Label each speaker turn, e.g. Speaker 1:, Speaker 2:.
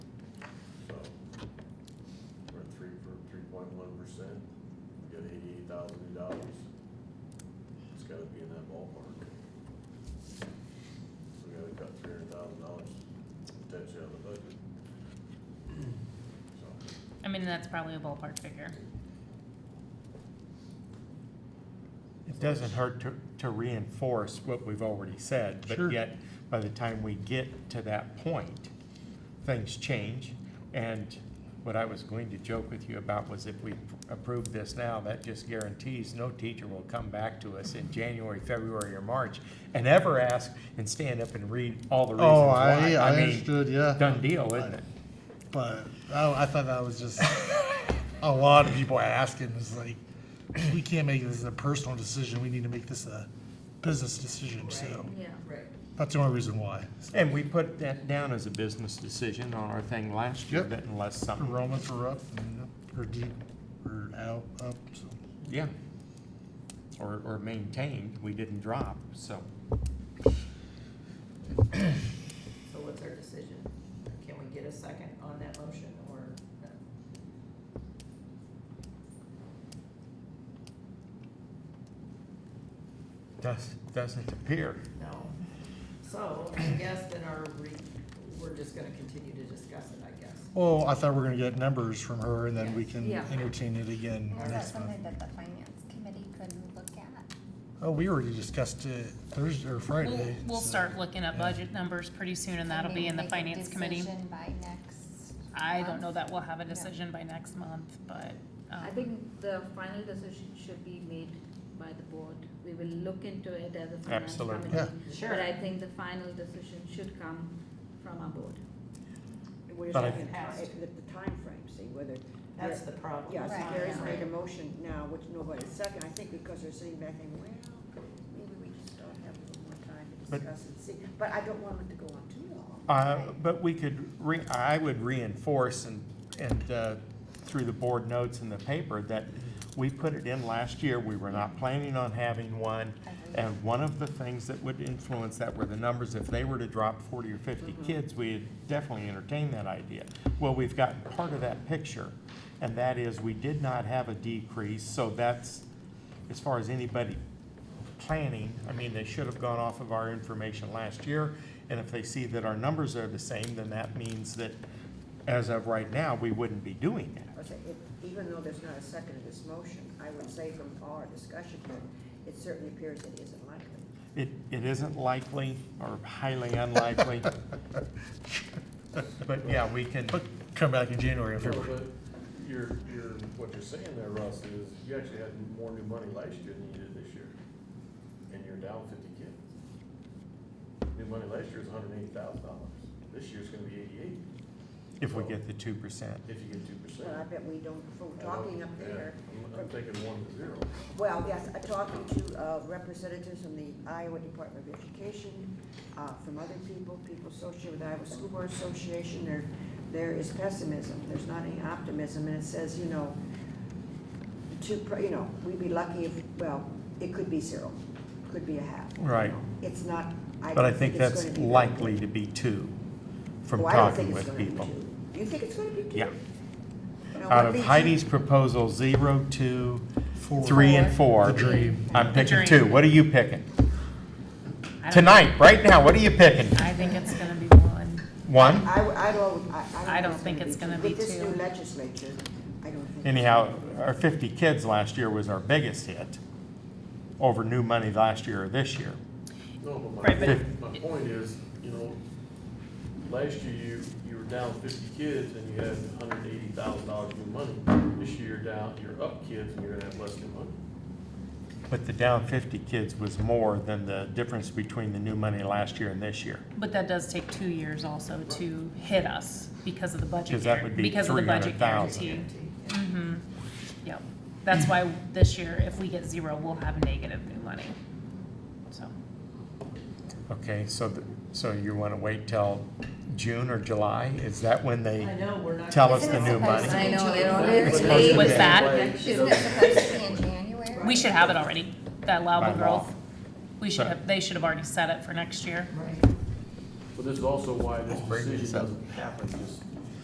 Speaker 1: percent, we got eighty-eight thousand dollars. It's gotta be in that ballpark. So we gotta cut three hundred thousand dollars potentially out of the budget. So,
Speaker 2: I mean, that's probably a ballpark figure.
Speaker 3: It doesn't hurt to, to reinforce what we've already said, but yet, by the time we get to that point, things change. And what I was going to joke with you about was if we approve this now, that just guarantees no teacher will come back to us in January, February, or March and ever ask and stand up and read all the reasons
Speaker 4: Oh,
Speaker 3: why.
Speaker 4: I, I
Speaker 3: mean,
Speaker 4: understood, yeah.
Speaker 3: Done deal, isn't it?
Speaker 4: But I, I thought that was just a lot of people asking. It's like, we can't make this a personal decision. We need to make this a business decision. So
Speaker 5: Yeah. Right.
Speaker 4: that's the only reason why.
Speaker 3: And we put that down as a business decision on our thing last year,
Speaker 4: Yep.
Speaker 3: that unless
Speaker 4: The
Speaker 3: something,
Speaker 4: Romans were up, and, or deep, or out, up. So
Speaker 3: yeah, or, or maintained, we didn't drop, so.
Speaker 5: So what's our decision? Can we get a second on that motion or no?
Speaker 3: Does, doesn't appear.
Speaker 5: No. So I guess then our, re- we're just gonna continue to discuss it, I guess.
Speaker 4: Well, I thought we were going to get numbers from her, and then we can
Speaker 5: Yeah.
Speaker 4: entertain it again
Speaker 6: Is that
Speaker 4: next month.
Speaker 6: something that the finance committee could look at?
Speaker 4: Oh, we already discussed it Thursday or
Speaker 2: We'll,
Speaker 4: Friday.
Speaker 2: we'll
Speaker 3: uh,
Speaker 4: so-
Speaker 2: start looking at
Speaker 4: yeah.
Speaker 2: budget numbers pretty soon and that'll be in the finance committee.
Speaker 6: Maybe make a decision by next.
Speaker 2: I don't know
Speaker 6: month?
Speaker 2: that we'll have a
Speaker 6: Yeah.
Speaker 2: decision by next month, but,
Speaker 7: I
Speaker 2: um,
Speaker 7: think the final decision should be made by the board. We will look into it as a finance
Speaker 3: Absolutely.
Speaker 7: committee.
Speaker 5: Yeah. Sure.
Speaker 7: But I think the final decision should come from our board.
Speaker 8: We're
Speaker 3: But
Speaker 8: just
Speaker 3: I-
Speaker 8: looking at it with the timeframe, see, whether,
Speaker 5: That's the problem.
Speaker 8: yeah,
Speaker 6: Right.
Speaker 8: see, Gary's
Speaker 6: Yeah.
Speaker 8: made a motion now, which nobody's second, I think because they're sitting back thinking, well, maybe we just don't have a little more time to
Speaker 3: But-
Speaker 8: discuss and see, but I don't want it to go on too long.
Speaker 3: Uh, but we could re, I would reinforce and, and, uh, through the board notes in the paper that we put it in last year, we were not planning on having one. And one of the things that would influence that were the numbers, if they were to drop forty or fifty
Speaker 8: Mm-hmm.
Speaker 3: kids, we'd definitely entertain that idea. Well, we've gotten part of that picture, and that is, we did not have a decrease, so that's, as far as anybody planning, I mean, they should have gone off of our information last year, and if they see that our numbers are the same, then that means that, as of right now, we wouldn't be doing that.
Speaker 8: I say, if- Even though there's not a second to this motion, I would say from our discussion here, it certainly appears it isn't likely.
Speaker 3: It, it isn't likely or highly unlikely. But yeah, we can,
Speaker 4: But come back in January and
Speaker 1: No,
Speaker 4: February.
Speaker 1: but you're, you're, what you're saying there, Russ, is you actually had more new money last year than you did this year. And you're down fifty kids. New money last year was hundred and eighty thousand dollars. This year's gonna be eighty-eight,
Speaker 3: if we get the two percent.
Speaker 1: if you get two percent.
Speaker 8: But I bet we don't, from talking up there,
Speaker 1: I'm taking one to zero.
Speaker 8: Well, yes, uh, talking to uh, representatives from the Iowa Department of Education, uh, from other people, people associated with Iowa School Board Association, there, there is pessimism, there's not any optimism, and it says, you know, to, pr- you know, we'd be lucky if, well, it could be zero, could be a half. you
Speaker 3: Right.
Speaker 8: know. It's not, I
Speaker 3: But I
Speaker 8: don't
Speaker 3: think
Speaker 8: think
Speaker 3: that's
Speaker 8: it's gonna be. very
Speaker 3: likely
Speaker 8: good.
Speaker 3: to be two, from
Speaker 8: Oh, I don't
Speaker 3: talking
Speaker 8: think it's
Speaker 3: with
Speaker 8: gonna be
Speaker 3: people.
Speaker 8: two. You think it's gonna be two?
Speaker 3: Yeah.
Speaker 8: Now, what
Speaker 3: Out of
Speaker 8: leads you-
Speaker 3: Heidi's proposal, zero, two,
Speaker 4: Four.
Speaker 3: three, and four.
Speaker 4: The dream.
Speaker 3: I'm picking
Speaker 2: dream.
Speaker 3: two. What are you picking?
Speaker 2: I don't-
Speaker 3: Tonight, right now, what are you picking?
Speaker 2: I think it's gonna be one.
Speaker 3: One?
Speaker 8: I, I don't, I, I
Speaker 2: I don't think it's gonna be
Speaker 8: With this
Speaker 2: two.
Speaker 8: new legislature, I don't think.
Speaker 3: Anyhow, our fifty kids last year was our biggest hit over new money last year or this year.
Speaker 1: No, but my,
Speaker 2: Right,
Speaker 1: point-
Speaker 2: but-
Speaker 1: my point is, you know, last year you, you were down fifty kids and you had hundred and eighty thousand dollars new money. This year you're down, you're up kids and you're gonna have less new money.
Speaker 3: But the down fifty kids was more than the difference between the new money last year and this year.
Speaker 2: But that does take two years also to hit us because of the budget
Speaker 3: Because that
Speaker 2: guar-
Speaker 3: would be
Speaker 2: because of the budget
Speaker 3: 300,000.
Speaker 2: guarantee. Mm-hmm, yep. That's why this year, if we get zero, we'll have negative new money, so.
Speaker 3: Okay, so, th- so you want to wait till June or July? Is that when
Speaker 5: I
Speaker 3: they
Speaker 5: know, we're not.
Speaker 3: tell
Speaker 5: gonna-
Speaker 3: us the new
Speaker 6: Isn't it
Speaker 3: money?
Speaker 6: supposed-
Speaker 7: I know, they
Speaker 6: But
Speaker 7: don't
Speaker 6: it's
Speaker 7: have
Speaker 3: supposed
Speaker 7: it.
Speaker 3: to
Speaker 2: What's
Speaker 3: be-
Speaker 2: that?
Speaker 6: Isn't it supposed to be in January?
Speaker 2: We should have it already, that allowable
Speaker 3: By law.
Speaker 2: growth. We should have, they should have already set it for next year.
Speaker 5: Right.
Speaker 1: But this is also why this
Speaker 3: Bring this
Speaker 1: decision
Speaker 3: up.
Speaker 1: doesn't happen just